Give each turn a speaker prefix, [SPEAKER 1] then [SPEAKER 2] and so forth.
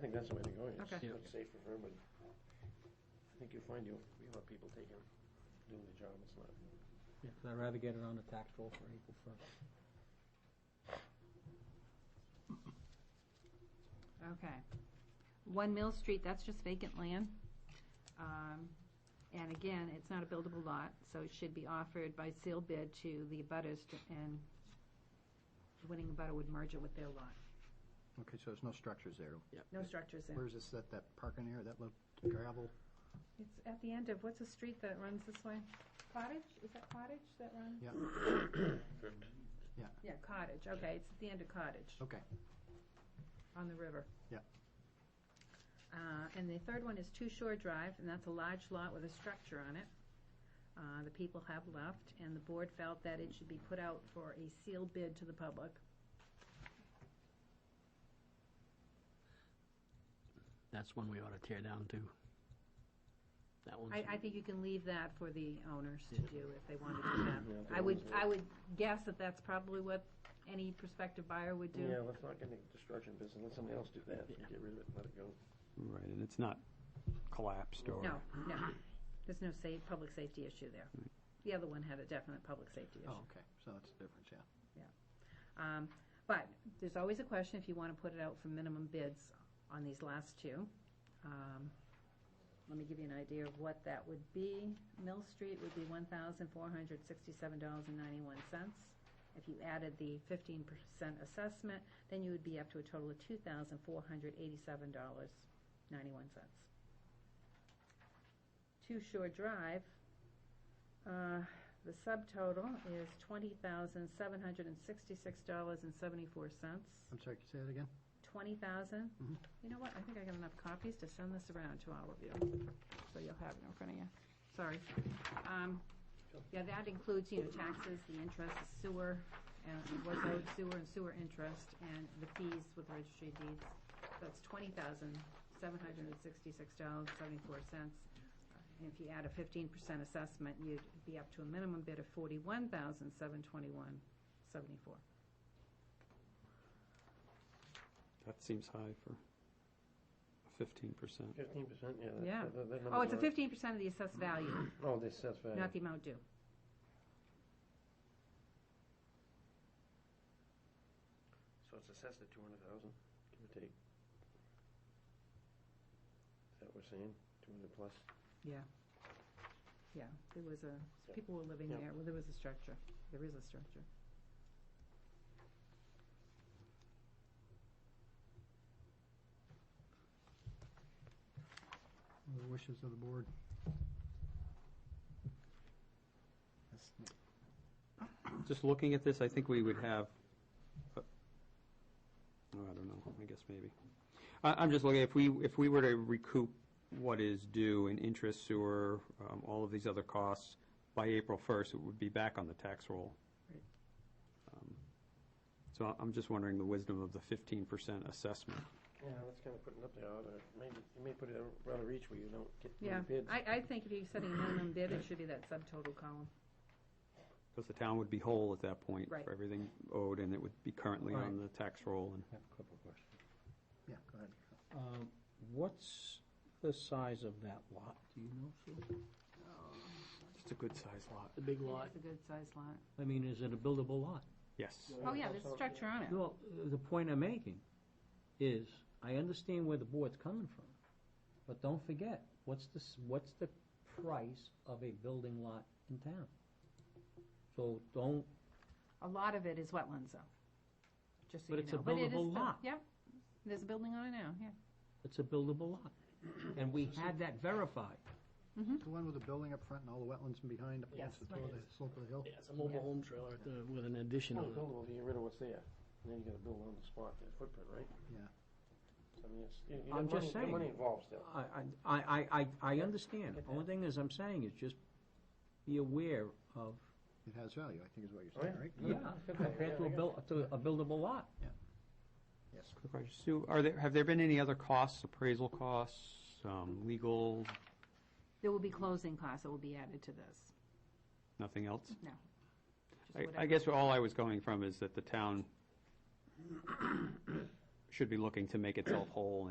[SPEAKER 1] think that's the way to go. It's
[SPEAKER 2] Okay.
[SPEAKER 3] Yeah.
[SPEAKER 1] much safer for everybody. I think you find you, you have people taking, doing the job, it's not.
[SPEAKER 3] Yeah, 'cause I'd rather get it on the tax roll for April first.
[SPEAKER 2] Okay. One Mill Street, that's just vacant land. Um, And again, it's not a buildable lot, so it should be offered by sealed bid to the abutters to- and the winning abutter would merge it with their lot.
[SPEAKER 4] Okay, so there's no structures there.
[SPEAKER 2] No structures there.
[SPEAKER 4] Where's this, that, that parking area, that little gravel?
[SPEAKER 2] It's at the end of, what's a street that runs this way? Cottage, is that Cottage that runs?
[SPEAKER 4] Yeah. Yeah.
[SPEAKER 2] Yeah, Cottage, okay, it's at the end of Cottage.
[SPEAKER 4] Okay.
[SPEAKER 2] On the river.
[SPEAKER 4] Yeah.
[SPEAKER 2] Uh, and the third one is Two Shore Drive, and that's a large lot with a structure on it. Uh, the people have left, and the board felt that it should be put out for a sealed bid to the public.
[SPEAKER 3] That's one we ought to tear down too. That one's.
[SPEAKER 2] I, I think you can leave that for the owners to do if they wanted to do that.
[SPEAKER 1] Yeah,
[SPEAKER 2] I would,
[SPEAKER 1] it's-
[SPEAKER 2] I would guess that that's probably what any prospective buyer would do.
[SPEAKER 1] Yeah, let's not get into destruction business, let somebody else do that,
[SPEAKER 3] Yeah.
[SPEAKER 1] get rid of it, let it go.
[SPEAKER 5] Right, and it's not collapsed or.
[SPEAKER 2] No, no, there's no sa- public safety issue there. The other one had a definite public safety issue.
[SPEAKER 4] Oh, okay, so that's the difference, yeah.
[SPEAKER 2] Um, But there's always a question if you want to put it out for minimum bids on these last two. Um, Let me give you an idea of what that would be. Mill Street would be one thousand four hundred sixty-seven dollars and ninety-one cents. If you added the fifteen percent assessment, then you would be up to a total of two thousand four hundred eighty-seven dollars, ninety-one cents. Two Shore Drive, uh, the subtotal is twenty thousand seven hundred and sixty-six dollars and seventy-four cents.
[SPEAKER 4] I'm sorry, can you say that again?
[SPEAKER 2] Twenty thousand?
[SPEAKER 4] Mhm.
[SPEAKER 2] You know what, I think I got enough copies to send this around to all of you, so you'll have it in front of you. Sorry. Um, Yeah, that includes, you know, taxes, the interest, the sewer, and what's owed sewer and sewer interest, and the fees with registry deeds. That's twenty thousand, seven hundred and sixty-six dollars, seventy-four cents. And if you add a fifteen percent assessment, you'd be up to a minimum bid of forty-one thousand, seven twenty-one, seventy-four.
[SPEAKER 5] That seems high for fifteen percent.
[SPEAKER 1] Fifteen percent, yeah. that-
[SPEAKER 2] Yeah.
[SPEAKER 1] that- that number's
[SPEAKER 2] Oh, it's a
[SPEAKER 1] not-
[SPEAKER 2] fifteen percent of the assessed value.
[SPEAKER 1] Oh, this sets value.
[SPEAKER 2] Not the amount due.
[SPEAKER 1] So it's assessed at two hundred thousand, give or take. Is that what we're saying, two hundred plus?
[SPEAKER 2] Yeah. Yeah, there was a,
[SPEAKER 1] Yeah.
[SPEAKER 2] people were living
[SPEAKER 1] Yeah.
[SPEAKER 2] there, well, there was a structure, there is a structure.
[SPEAKER 4] The wishes of the board. That's n-
[SPEAKER 5] Just looking at this, I think we would have, uh, oh, I don't know, I guess maybe. I, I'm just looking, if we, if we were to recoup what is due in interest, sewer, um, all of these other costs by April first, it would be back on the tax roll.
[SPEAKER 2] Right.
[SPEAKER 5] Um, So I- I'm just wondering the wisdom of the fifteen percent assessment.
[SPEAKER 1] Yeah, that's kind of putting up there, or maybe, you may put it out of reach where you don't get
[SPEAKER 2] Yeah,
[SPEAKER 1] many bids.
[SPEAKER 2] I, I think if you're setting a minimum bid, it should be that subtotal column.
[SPEAKER 5] Because the town would be whole at that point
[SPEAKER 2] Right.
[SPEAKER 5] for everything owed, and it would be currently on the tax roll. And
[SPEAKER 6] I have a couple of questions.
[SPEAKER 4] Yeah, go ahead.
[SPEAKER 6] Um, What's the size of that lot, do you know, Sue?
[SPEAKER 5] It's a good-sized lot.
[SPEAKER 3] The big
[SPEAKER 2] It's a good sized lot.
[SPEAKER 6] I mean, is it a buildable lot?
[SPEAKER 5] Yes.
[SPEAKER 2] Oh, yeah, there's a structure on it.
[SPEAKER 6] Well, the point I'm making is, I understand where the board's coming from, but don't forget, what's the, s- what's the price of a building lot in town? So don't,
[SPEAKER 2] A lot of it is wetlands though, just so
[SPEAKER 6] But
[SPEAKER 2] you know.
[SPEAKER 6] it's a
[SPEAKER 2] it is built-
[SPEAKER 6] buildable lot.
[SPEAKER 2] Yep, there's a building on it now, yeah.
[SPEAKER 6] it's a buildable lot. And we had that verified.
[SPEAKER 4] The one with the building up front and all the wetlands and behind up
[SPEAKER 2] Yes.
[SPEAKER 4] against the top of the slope of the hill?
[SPEAKER 7] Yeah, it's a mobile home trailer at the- with an addition
[SPEAKER 3] Oh,
[SPEAKER 1] Well,
[SPEAKER 7] on it.
[SPEAKER 1] buildable, you get rid of what's there, and then you gotta build on the spot, that footprint, right?
[SPEAKER 4] Yeah.
[SPEAKER 1] So, I mean, it's, you, you
[SPEAKER 6] I'm
[SPEAKER 1] got money,
[SPEAKER 6] just
[SPEAKER 1] you got
[SPEAKER 6] saying.
[SPEAKER 1] money involved still.
[SPEAKER 6] I, I, I, I, I understand. The Only thing is, I'm saying is just be aware of,
[SPEAKER 4] It has value, I think is what you're
[SPEAKER 1] Oh,
[SPEAKER 4] saying,
[SPEAKER 1] yeah.
[SPEAKER 4] right?
[SPEAKER 6] yeah, compared to a buil, to a buildable lot.
[SPEAKER 4] Yes.
[SPEAKER 5] Quick question. Sue, are there, have there been any other costs, appraisal costs, um, legal,
[SPEAKER 2] There will be closing costs that will be added to this.
[SPEAKER 5] nothing else?
[SPEAKER 2] No. Just
[SPEAKER 5] I- I
[SPEAKER 2] whatever.
[SPEAKER 5] guess all I was going from is that the town should be looking to make itself whole